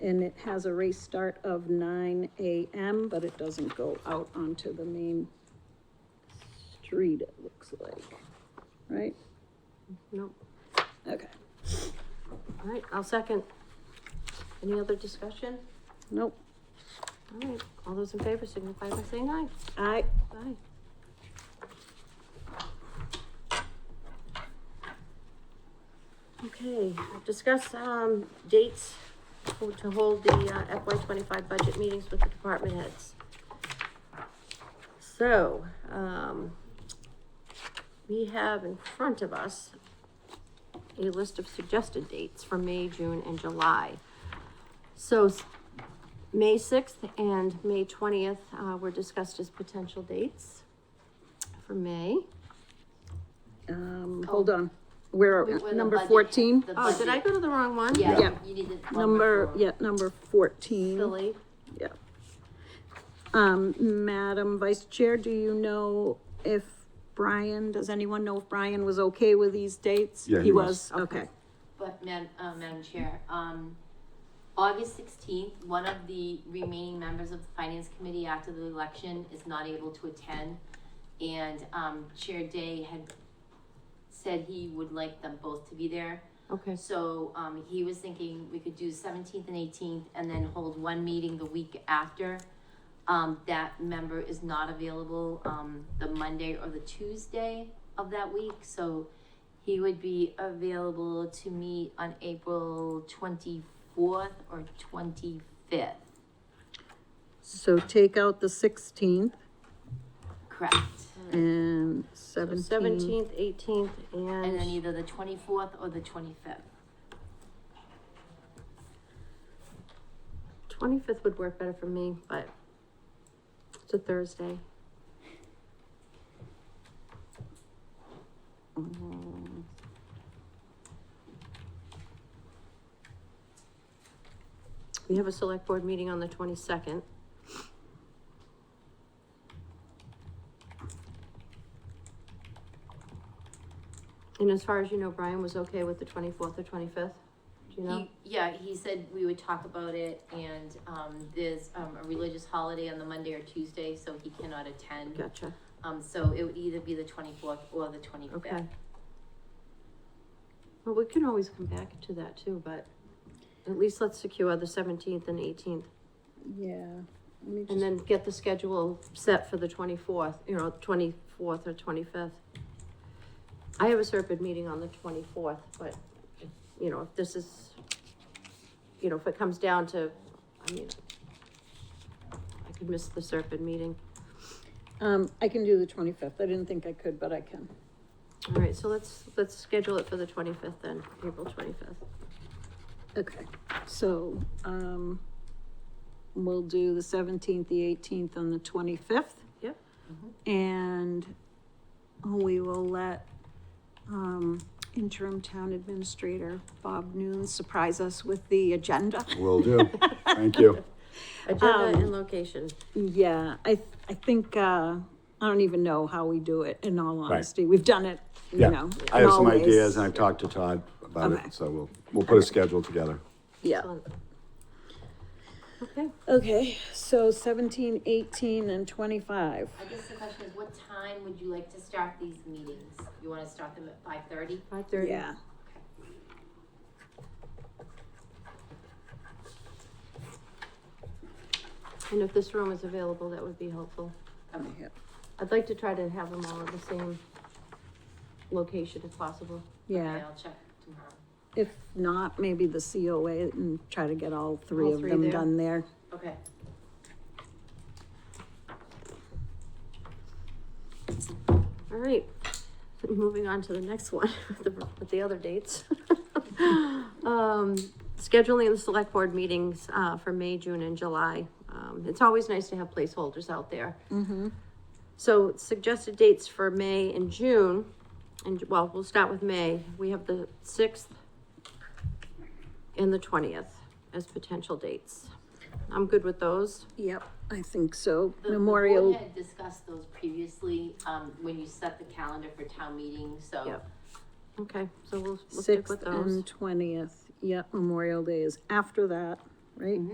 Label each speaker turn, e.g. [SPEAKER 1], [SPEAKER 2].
[SPEAKER 1] And it has a race start of nine AM, but it doesn't go out onto the main street, it looks like, right?
[SPEAKER 2] No,
[SPEAKER 1] Okay,
[SPEAKER 2] all right, I'll second. Any other discussion?
[SPEAKER 1] nope,
[SPEAKER 2] All right, all those in favor signify by saying aye.
[SPEAKER 1] I,
[SPEAKER 2] Aye. Okay, discuss, um, dates for- to hold the FY twenty-five budget meetings with the department heads. So, um, we have in front of us a list of suggested dates for May, June, and July. So s- May sixth and May twentieth, uh, were discussed as potential dates for May.
[SPEAKER 1] um, hold on, where,
[SPEAKER 3] We were the
[SPEAKER 1] number
[SPEAKER 3] budget-
[SPEAKER 1] fourteen?
[SPEAKER 3] the
[SPEAKER 2] Oh, did I
[SPEAKER 3] budget-
[SPEAKER 2] go to the wrong one?
[SPEAKER 3] Yeah,
[SPEAKER 1] Yeah.
[SPEAKER 3] you did it.
[SPEAKER 1] Number, yeah, number fourteen.
[SPEAKER 2] Silly.
[SPEAKER 1] Yeah. Um, Madam Vice Chair, do you know if Brian, does anyone know if Brian was okay with these dates?
[SPEAKER 4] Yeah, he was.
[SPEAKER 1] Okay,
[SPEAKER 3] But Madam, uh, Madam Chair, um, August sixteenth, one of the remaining members of the Finance Committee after the election is not able to attend. And, um, Chair Day had said he would like them both to be there.
[SPEAKER 2] Okay,
[SPEAKER 3] So, um, he was thinking we could do seventeenth and eighteenth and then hold one meeting the week after. Um, that member is not available, um, the Monday or the Tuesday of that week, so he would be available to meet on April twenty-fourth or twenty-fifth,
[SPEAKER 1] so take out the sixteenth
[SPEAKER 3] correct?
[SPEAKER 1] and
[SPEAKER 2] so
[SPEAKER 1] seventeenth.
[SPEAKER 2] seventeenth, eighteenth,
[SPEAKER 3] And then
[SPEAKER 2] and,
[SPEAKER 3] either the twenty-fourth or the twenty-fifth.
[SPEAKER 2] twenty-fifth would work better for me, but it's a Thursday. We have a select board meeting on the twenty-second. And as far as you know, Brian was okay with the twenty-fourth or twenty-fifth? Do you know?
[SPEAKER 3] He, yeah, he said we would talk about it and, um, there's, um, a religious holiday on the Monday or Tuesday, so he cannot attend.
[SPEAKER 2] Gotcha,
[SPEAKER 3] Um, so it would either be the twenty-fourth or the twenty-fifth.
[SPEAKER 2] okay. Well, we can always come back to that too, but at least let's secure the seventeenth and eighteenth.
[SPEAKER 1] Yeah. let me
[SPEAKER 2] And
[SPEAKER 1] just-
[SPEAKER 2] then get the schedule set for the twenty-fourth, you know, twenty-fourth or twenty-fifth. I have a Serpent meeting on the twenty-fourth, but, you know, if this is, you know, if it comes down to, I mean, I could miss the Serpent meeting.
[SPEAKER 1] Um, I can do the twenty-fifth. I didn't think I could, but I can.
[SPEAKER 2] All right, so let's, let's schedule it for the twenty-fifth then, April twenty-fifth.
[SPEAKER 1] Okay, so, um, we'll do the seventeenth, the eighteenth, and the twenty-fifth. Mm-hmm.
[SPEAKER 2] Yep.
[SPEAKER 1] And we will let, um, interim town administrator Bob Noon surprise us with the agenda.
[SPEAKER 4] Will do. Thank you.
[SPEAKER 2] Agenda and location.
[SPEAKER 1] Yeah, I, th- I think, uh, I don't even know how we do it, in all
[SPEAKER 4] Right.
[SPEAKER 1] honesty. We've done it, you
[SPEAKER 4] Yeah,
[SPEAKER 1] know.
[SPEAKER 4] I have
[SPEAKER 1] in all
[SPEAKER 4] some
[SPEAKER 1] ways.
[SPEAKER 4] ideas and I've talked to Todd about
[SPEAKER 1] Okay.
[SPEAKER 4] it, so we'll, we'll put a schedule together.
[SPEAKER 1] Yeah.
[SPEAKER 2] Excellent. Okay,
[SPEAKER 1] Okay, so seventeen, eighteen, and twenty-five.
[SPEAKER 3] I guess the question is, what time would you like to start these meetings? You wanna start them at five thirty?
[SPEAKER 2] five thirty.
[SPEAKER 1] Yeah.
[SPEAKER 2] And if this room is available, that would be helpful.
[SPEAKER 1] Yeah.
[SPEAKER 2] I'd like to try to have them all at the same location if possible.
[SPEAKER 1] Yeah.
[SPEAKER 3] I'll check tomorrow.
[SPEAKER 1] If not, maybe the COA and try to get all three
[SPEAKER 2] All
[SPEAKER 1] of
[SPEAKER 2] three
[SPEAKER 1] them
[SPEAKER 2] there.
[SPEAKER 1] done there.
[SPEAKER 3] Okay.
[SPEAKER 2] All right, moving on to the next one, with the, with the other dates. Um, scheduling the select board meetings, uh, for May, June, and July. Um, it's always nice to have placeholders out there. So suggested dates for May and June, and, well, we'll start with May. We have the sixth and the twentieth as potential dates. I'm good with those.
[SPEAKER 1] Yep, I think so.
[SPEAKER 3] The- The
[SPEAKER 1] Memorial,
[SPEAKER 3] board had discussed those previously, um, when you set the calendar for town meeting, so
[SPEAKER 2] Yep. Okay, so we'll, we'll stick
[SPEAKER 1] sixth
[SPEAKER 2] with those.
[SPEAKER 1] and twentieth. Yep, Memorial Day is after that.
[SPEAKER 2] Mm-hmm.
[SPEAKER 1] right?